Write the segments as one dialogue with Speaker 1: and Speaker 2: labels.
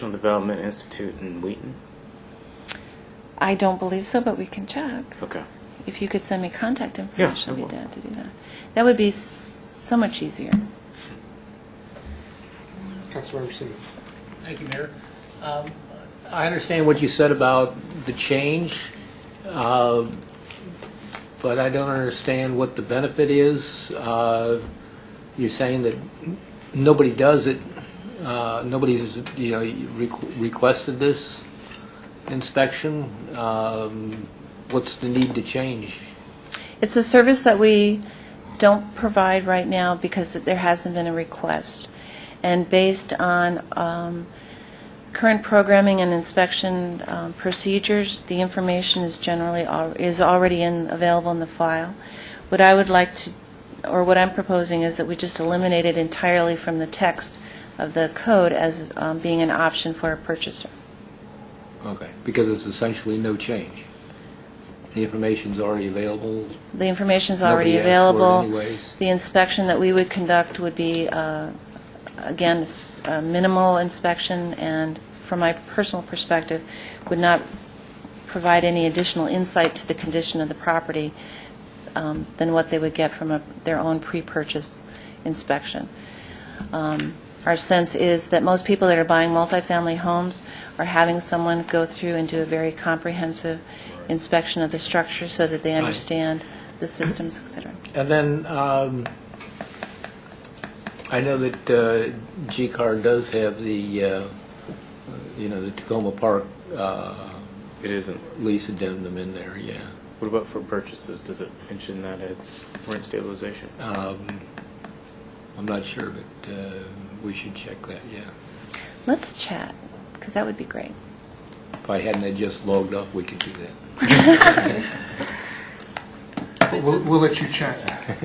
Speaker 1: Professional Development Institute in Wheaton?
Speaker 2: I don't believe so, but we can check.
Speaker 1: Okay.
Speaker 2: If you could send me contact information,
Speaker 1: I
Speaker 2: I'd be
Speaker 1: will.
Speaker 2: down to do that. That would be s- so much easier.
Speaker 3: Councilmember Simmons.
Speaker 4: Thank you, Mayor. Um, I understand what you said about the change, uh, but I don't understand what the benefit is. Uh, You're saying that nobody does it, uh, nobody's, you know, requ- requested this inspection. Um, What's the need to change?
Speaker 2: It's a service that we don't provide right now because there hasn't been a request. And based on um, current programming and inspection um, procedures, the information is generally, al- is already in, available in the file. What I would like to, or what I'm proposing is that we just eliminate it entirely from the text of the code as um, being an option for a purchaser.
Speaker 4: Okay, because it's essentially no change. The information's already available.
Speaker 2: The information's already
Speaker 4: Nobody asked for it
Speaker 2: available.
Speaker 4: anyways.
Speaker 2: The inspection that we would conduct would be, uh, again, s- a minimal inspection, and from my personal perspective, would not provide any additional insight to the condition of the property um, than what they would get from a- their own pre-purchase inspection. Um, Our sense is that most people that are buying multifamily homes are having someone go through and do a very comprehensive inspection of the structure so that they understand the systems, et cetera.
Speaker 4: And then, um, I know that uh, G-Car does have the, uh, you know, the Tacoma Park uh,
Speaker 1: It isn't.
Speaker 4: lease addendum in there, yeah.
Speaker 1: What about for purchases? Does it mention that it's rent stabilization?
Speaker 4: Um, I'm not sure, but uh, we should check that, yeah.
Speaker 2: Let's chat, because that would be great.
Speaker 4: If I hadn't had just logged off, we could do that.
Speaker 3: But We'll, we'll let you chat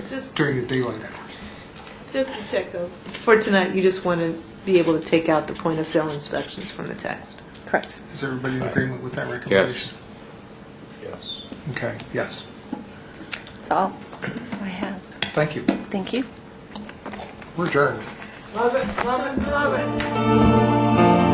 Speaker 5: Just,
Speaker 3: during the daylight hours.
Speaker 5: just to check though, for tonight, you just want to be able to take out the point of sale inspections from the text.
Speaker 2: Correct.
Speaker 3: Is everybody in agreement with that recommendation?
Speaker 6: Yes.
Speaker 3: Okay, yes.
Speaker 2: That's all I have.
Speaker 3: Thank you.
Speaker 2: Thank you.
Speaker 3: We're adjourned.
Speaker 5: Love it, love it, love it.